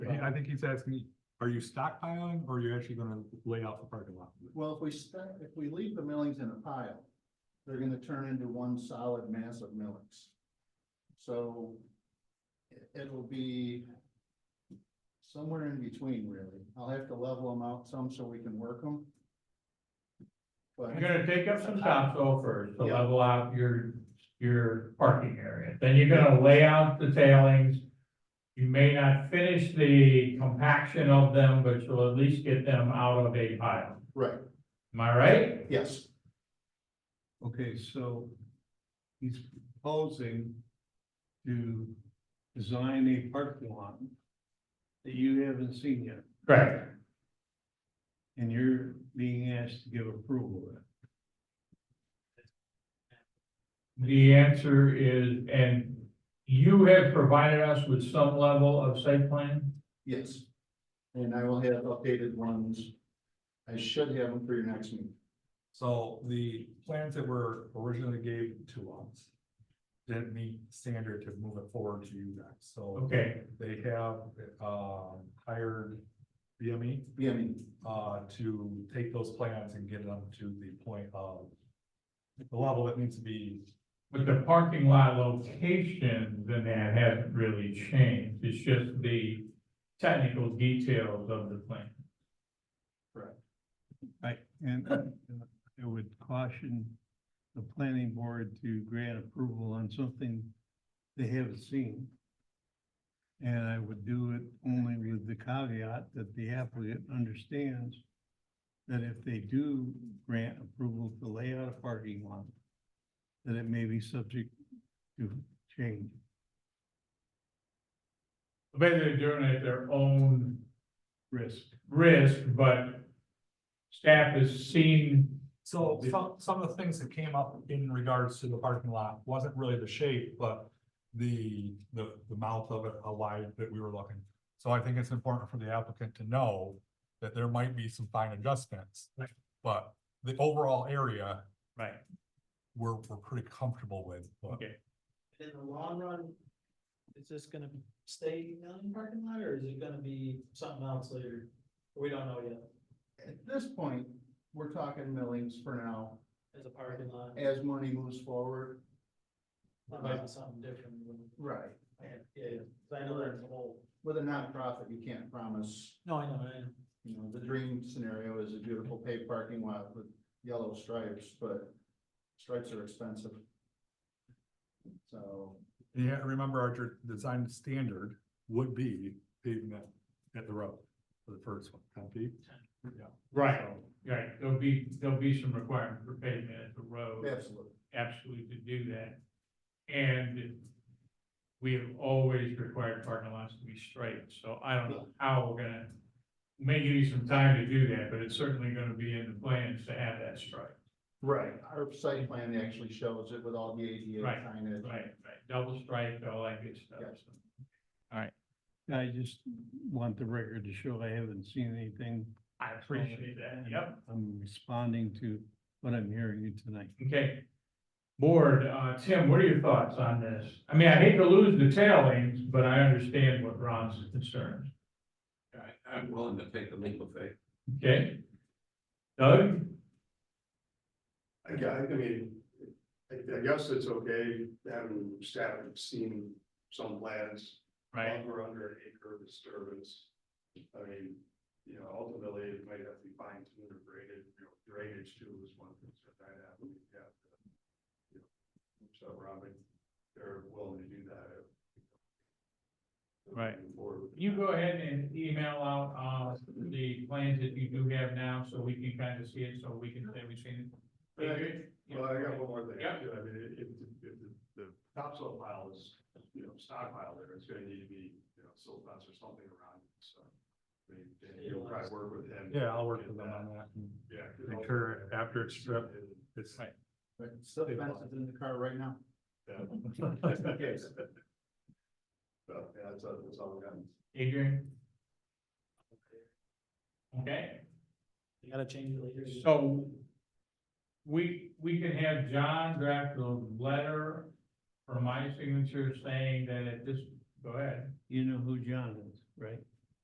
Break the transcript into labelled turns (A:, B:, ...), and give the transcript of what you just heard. A: I, I think he's asking, are you stockpiling or are you actually gonna lay out the parking lot?
B: Well, if we start, if we leave the millings in a pile, they're gonna turn into one solid mass of millings. So it- it'll be somewhere in between, really. I'll have to level them out some so we can work them. But,
C: You're gonna take up some topsoil first to
B: Yeah.
C: level out your, your parking area, then you're gonna lay out the tailings. You may not finish the compaction of them, but you'll at least get them out of a pile,
B: right,
C: am I right?
B: yes,
D: Okay, so he's proposing to design a parking lot that you haven't seen yet,
C: Correct.
D: and you're being asked to give approval of it.
C: The answer is, and you have provided us with some level of site plan?
B: yes. And I will have updated ones. I should have them for your next meeting.
A: So the plans that were originally gave to us didn't meet standard to move it forward to you guys, so
C: Okay,
A: they have, um, hired BME,
B: Yeah, I mean,
A: uh, to take those plans and get them to the point of the level that needs to be
C: but the parking lot location, then that hasn't really changed, it's just the technical details of the plan.
D: Right, and uh, I would caution the planning board to grant approval on something they haven't seen. And I would do it only with the caveat that the applicant understands that if they do grant approval to lay out a parking lot, that it may be subject to change.
C: Basically doing it at their own
D: Risk.
C: risk, but staff has seen,
A: So some, some of the things that came up in regards to the parking lot wasn't really the shape, but the, the, the mouth of it, how wide that we were looking. So I think it's important for the applicant to know that there might be some fine adjustments.
C: Right.
A: But the overall area,
C: right,
A: we're, we're pretty comfortable with. but-
C: okay.
E: in the long run, is this gonna stay down in the parking lot, or is it gonna be something else later? We don't know yet,
B: at this point, we're talking millings for now.
E: as a parking lot,
B: As money moves forward,
E: unless something different. when-
B: right,
E: Yeah, yeah, 'cause I know there's a whole.
B: with a nonprofit, you can't promise,
E: No, I know, I know.
B: you know, the dream scenario is a beautiful paved parking lot with yellow stripes, but stripes are expensive. So,
A: Yeah, remember our dr- design standard would be pavement at the road for the first one, ten feet. Yeah.
C: Right, right, there'll be, there'll be some requirement for pavement at the road.
B: absolutely,
C: absolutely to do that. And we have always required parking lots to be striped, so I don't know how we're gonna, may give you some time to do that, but it's certainly gonna be in the plans to have that stripe.
B: right, our site plan actually shows it with all the ADA
C: Right,
B: signage.
C: Right, right, double stripe, all that good stuff.
B: Yes.
D: I just want the record to show I haven't seen anything.
C: I appreciate that, yep,
D: I'm responding to what I'm hearing you tonight.
C: okay. Board, uh, Tim, what are your thoughts on this? I mean, I hate to lose the tailings, but I understand what Ron's concerns,
F: I, I'm willing to take the leap of faith.
C: okay? Doug?
G: I gue- I mean, I, I guess it's okay, having staff have seen some plans, over under an acre of disturbance. I mean, you know, ultimately, it might have to be fine tuned or graded, you know, drainage too is one thing that might happen, you have to. you know, So Robin, they're willing to do that.
C: Right.
G: Moving forward with
C: You
G: that.
C: go ahead and email out, uh, the plans that you do have now, so we can kind of see it, so we can say we've seen it.
G: Yeah.
C: Agree?
G: Well, I got one more thing.
C: Yeah.
G: too. I mean, if, if the- the topsoil pile is, you know, stockpile there, it's gonna need to be, you know, silt fence or something around it, so. I mean, Dan, you'll probably work with him.
A: Yeah, I'll work with them on that.
G: Yeah. 'cause
A: Make sure after it's stripped, it's
B: But still fences in the car right now.
G: Yeah. So, yeah, that's, all- that's all we got.
C: Adrian? Okay,
E: You gotta change it later.
C: so we, we can have John draft a letter for my signature saying that at this, go ahead.
D: You know who John is, right?